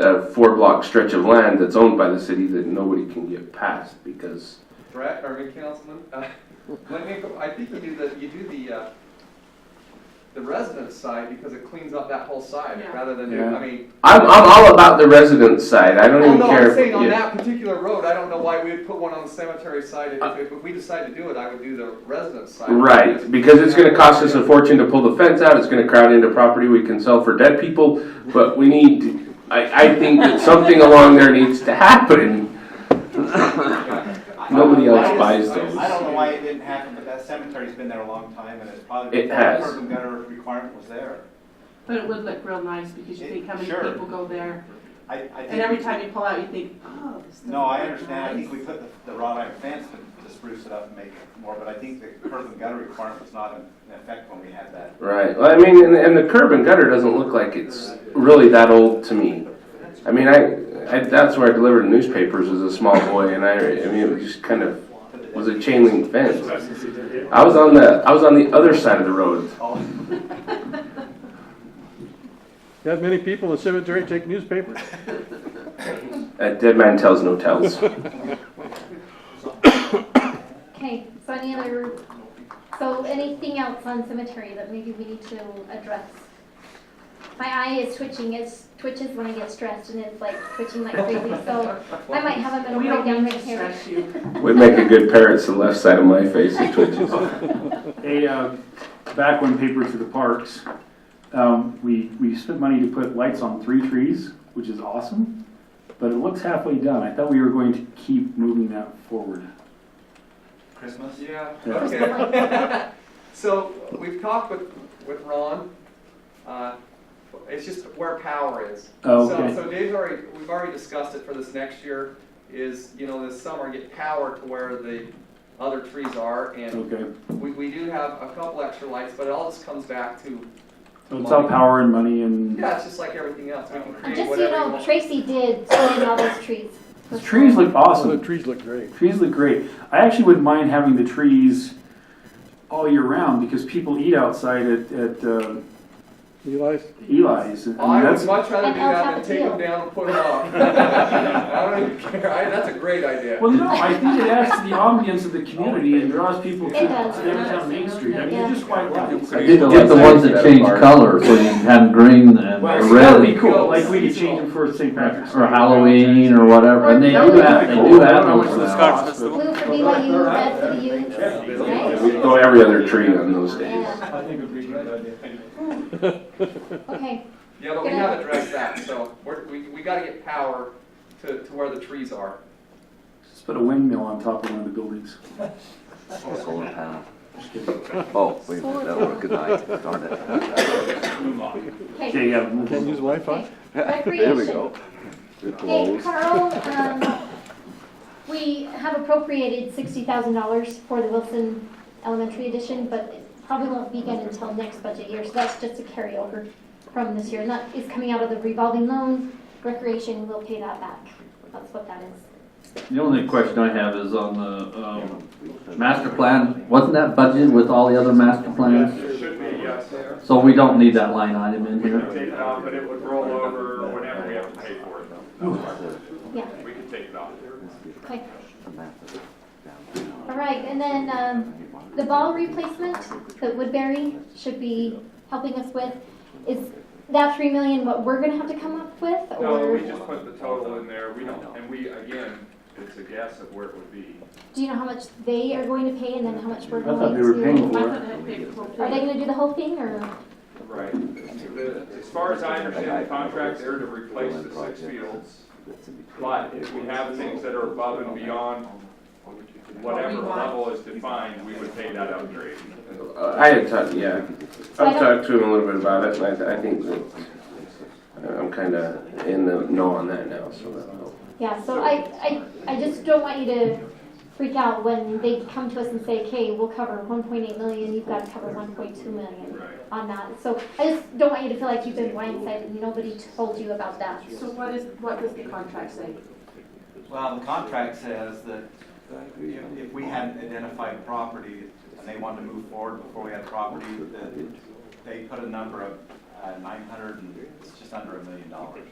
a four block stretch of land that's owned by the city that nobody can get past because Brett, or good councilman, uh, let me, go- I think you do the, you do the, uh, the resident side because it cleans up that whole side Yeah. rather than, Yeah. I mean, I'm, I'm all about the resident side. I don't well, even no, care. I'm saying on yeah. that particular road, I don't know why we would put one on the cemetery side. If, if if we decide to do it, I would do the resident side. Uh, Right, because it's gonna cost us a fortune to pull the fence out, it's gonna crowd into property we can sell for dead people, but we need, I, I think that something along there needs to happen. Nobody I- I else just- buys I just- those. I don't know why it didn't happen, but that cemetery's been there a long time and it's probably. It has. Curb and gutter requirement was there. But it would look real nice because you think how many Sure. people go there, I, I think. and every time you pull out, you think, oh, this doesn't No, I look understand. I think we nice. put the, the wrought iron fence to, to spruce it up and make it more, but I think the curb and gutter requirement was not in in effect when we had that. Right, well, I mean, and, and the curb and gutter doesn't look like it's really that old to me. I mean, I, I, that's where I delivered newspapers as a small boy, and I, I mean, it was just kind of, was a chain link fence. I was on the, I was on the other side of the road. Oh, You have many people in the cemetery take newspapers. Uh, Dead man tells no tells. Okay, so any other, so anything else on cemetery that maybe we need to address? My eye is twitching, it twitches when I get stressed and it's like twitching like crazy, so I might have a mental We don't breakdown need right to here. stress you. Would make a good pair. It's the left side of my face that twitches. Hey, uh, back when paper through the parks, um, we, we spent money to put lights on three trees, which is awesome, but it looks halfway done. I thought we were going to keep moving that forward. Christmas? Yeah, Yeah. okay. So we've talked with, with Ron. Uh, It's just where power is. Oh, So- okay. So Dave's already, we've already discussed it for this next year, is, you know, this summer, get power to where the other trees are. And Okay. we, we do have a couple extra lights, but it all just comes back to, So it's all power and money and yeah, it's just like everything else. We can And create Just so you whatever we know, want. Tracy did plant all those trees. the trees look Oh, the awesome. trees look great. Trees look great. I actually wouldn't mind having the trees all year round because people eat outside at, at uh, Eli's? Eli's. I mean, I that's- would much rather And do El that than take them Tapatio. down and put them up. I don't even care. I- That's a great idea. Well, no, I think it adds to the ambience of the community and draws people to It does. to downtown Main Street. I mean, you're just quite right. I did get the ones that change color, so you can have green and Well, that would be red, cool, like we could change them for St. Patrick's. or Halloween, or whatever, and they That would do be have, they cool. do I have don't know them how for much this that. costs, but- Blue for BYU, red for the youth, We right? go every other tree on those days. Yeah, I think it would be a good idea. okay, Yeah, but we have addressed that, so we're, we, we gotta get power to, to where the trees are. Just put a windmill on top of one of the buildings. Solar panel. Just kidding. Oh, wait a minute, that worked, good night, darn it. okay. Okay, yeah. Can't use Wi-Fi? Okay. Recreation. Hey, Carl, um, we have appropriated sixty thousand dollars for the Wilson Elementary addition, but it probably won't begin until next budget year, so that's just a carryover from this year, and that is coming out of the revolving loan, recreation will pay that back, that's what that is. The only question I have is on the, um, master plan, wasn't that budgeted with all the other master plans? It should be, yes. So we don't need that line item in We could here? take it off, but it would roll over whenever we have to pay for it. Yeah. We could take it off. Okay. All right, and then, um, the ball replacement that Woodbury should be helping us with, is that three million what we're gonna have to come up with, No, or we just put the total in there, we don't, and we, again, it's a guess of where it would be. do you know how much they are going to pay and then how much we're I going to? thought they were paying for it. Are they gonna do the whole thing, or, Right. As far as I understand the contract, they're to replace the six fields, but if we have things that are above and beyond whatever level is defined, we would pay that upgrade. Uh, I had talked, yeah, I've talked to him a little bit about it, and I, I think that uh, I'm kind of in the know on that now, so uh, that'll help. yeah, so I, I, I just don't want you to freak out when they come to us and say, okay, we'll cover one point eight million, you've gotta cover one point two million Right. on that, so I just don't want you to feel like you've been blindsided and nobody told you about that. So what is, what does the contract say? Well, the contract says that if, if we hadn't identified property and they wanted to move forward before we had property, uh, that they put a number of nine hundred and, it's just under a million dollars.